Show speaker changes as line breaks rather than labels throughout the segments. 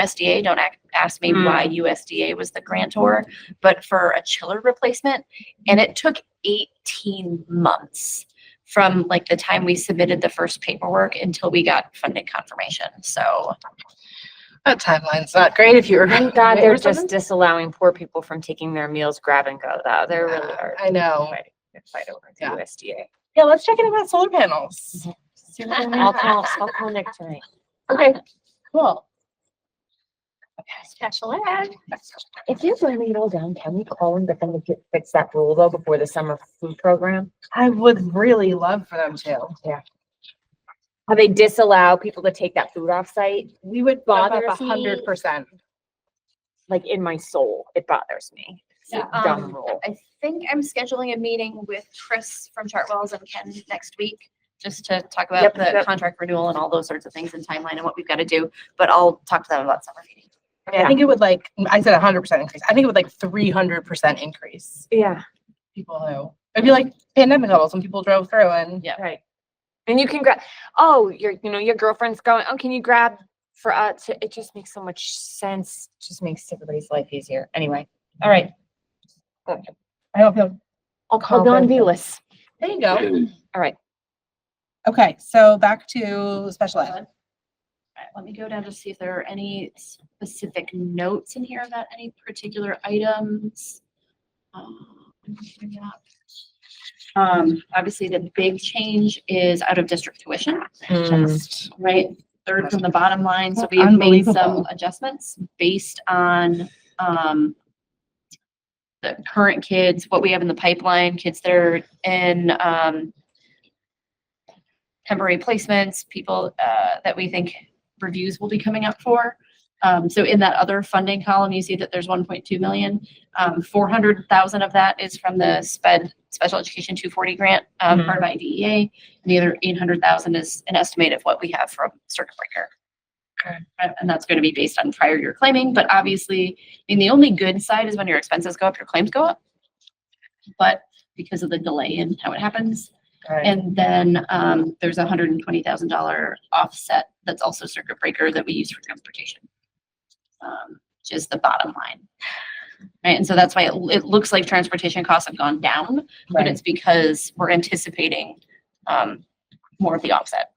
USDA. Don't ac- ask me
Hmm.
why USDA was the grantor, but for a chiller replacement. And it took 18 months from like the time we submitted the first paperwork until we got funding confirmation. So
That timeline's not great if you were.
Thank God they're
or something.
just disallowing poor people from taking their meals grab and go though. They're really
Yeah,
hard.
I know.
fighting the Fight over the
Yeah.
USDA.
Yeah, let's check in about solar
Mm-hmm.
panels. See what we
I'll
have.
call, I'll call Nick tonight.
Okay, cool.
Special ed.
If you bring it all down, can we call and get them to fi- fix that rule though before the summer food program?
I would really love for them to.
How they disallow people to take that food off site?
We would bother a
Bothers me.
hundred percent.
Like in my soul, it bothers me. It's a
Yeah,
dumb
um,
rule.
I think I'm scheduling a meeting with Chris from Chartwell's and Ken next week just to talk about
Yep,
the
yep.
contract renewal and all those sorts of things and timeline and what we've got to do. But I'll talk to them about summer meeting.
I think it would like, I said a hundred percent increase. I think it would like three hundred percent increase.
Yeah.
People who, it'd be like pandemic levels when people drove through and.
Yeah.
Right. And you can grab, oh, your, you know, your girlfriend's going, oh, can you grab for us? It just makes so much sense. Just makes everybody's life easier. Anyway, all right.
I hope they'll.
I'll call
Call
Don
them.
Velas.
There you go.
All right.
Okay, so back to special ed.
Alright, let me go down to see if there are any specific notes in here about any particular items. Um, let me bring it up. Um, obviously, the big change is out of district tuition, just, right? Third from the bottom line, so we've made some
Unbelievable.
adjustments based on, um, the current kids, what we have in the pipeline, kids that are in, um, temporary placements, people, uh, that we think reviews will be coming up for. Um, so in that other funding column, you see that there's one point two million. Um, four hundred thousand of that is from the SPED, Special Education two forty grant, um, part of IDEA. And the other eight hundred thousand is an estimate of what we have from circuit breaker.
Okay.
And- And that's going to be based on prior year claiming, but obviously, I mean, the only good side is when your expenses go up, your claims go up. But because of the delay in how it happens, and then um, there's a hundred and twenty thousand dollar offset that's also circuit breaker that we use for transportation. Um, which is the bottom line. Right, and so that's why it, it looks like transportation costs have gone down, but it's because we're anticipating um, more of the offset.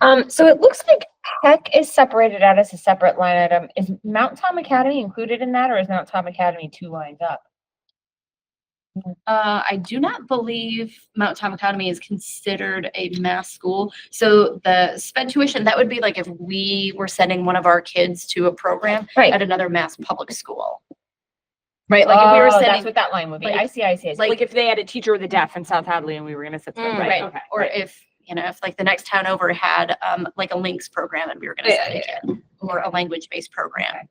Um, so it looks like Peck is separated out as a separate line item. Is Mount Tom Academy included in that, or is Mount Tom Academy two lines up?
Uh, I do not believe Mount Tom Academy is considered a mass school. So the sped tuition, that would be like if we were sending one of our kids to a program at
Right.
another mass public school. Right, like if we were
Oh,
sending
That's what that line would be.
like-
I see, I see, I see.
like-
Like if they had a teacher with a deaf in South Hadley and we were gonna sit
Mm,
them,
right,
right? okay,
or
right.
if you know if like the next town over had um like a links program and we were going to
Yeah,
send a kid or a language based program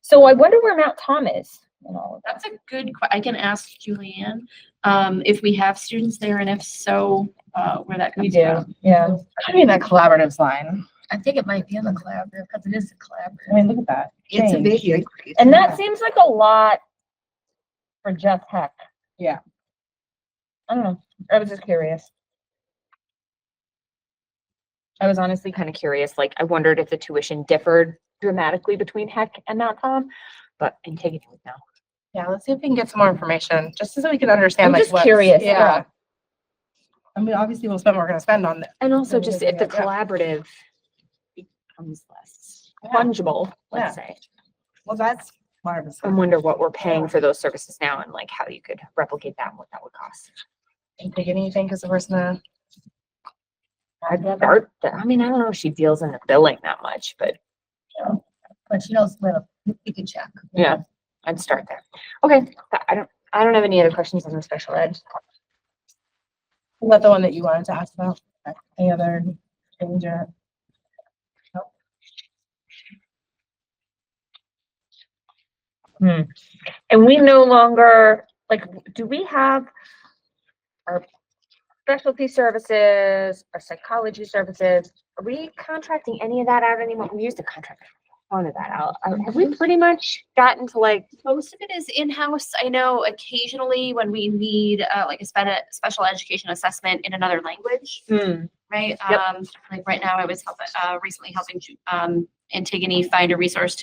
So I wonder where Mount Tom is. in all of that.
that's a good que- i can ask julianne um if we have students there and if so uh where that comes from
yeah.
I mean, that collaboratives line.
I think it might be in the collaborative, because it is a collaborative.
I mean, look at that.
It's a
change.
big increase.
And
Yeah.
that seems like a lot for Jeff Heck.
Yeah.
I don't know. I was just curious. I was honestly kind of curious, like I wondered if the tuition differed dramatically between Heck and Mount Tom, but I'm taking it now.
Yeah, let's see if we can get some more information, just so that we can understand
I'm
like
just
what's-
curious,
Yeah.
yeah.
I mean, obviously we'll spend what we're gonna spend on this.
And also
Maybe
just
they
if the
do, yeah.
collaborative becomes less
Yeah.
fungible, let's say.
Well, that's marvelous.
I wonder what we're paying for those services now and like how you could replicate that and what that would cost.
Didn't Take anything because the person, uh,
I'd start there. I mean, I don't know if she deals in the billing that much, but
But she knows little, you can check.
yeah, I'd start there. Okay, I- I don't, I don't have any other questions on the special ed.
was that the one that you wanted to ask about? Any other change or?
And we no longer, like, do we have our specialty services, our psychology services? Are we contracting any of that out anymore? We used to contract one of that out. Uh, Have we pretty much gotten to like,
most of it is in-house i know occasionally when we need uh, like a spe- special education assessment in another language
hmm,
right?
Yep.
Um, like right now, I was helping, uh, recently helping, Ju- um, Antigone find a resource to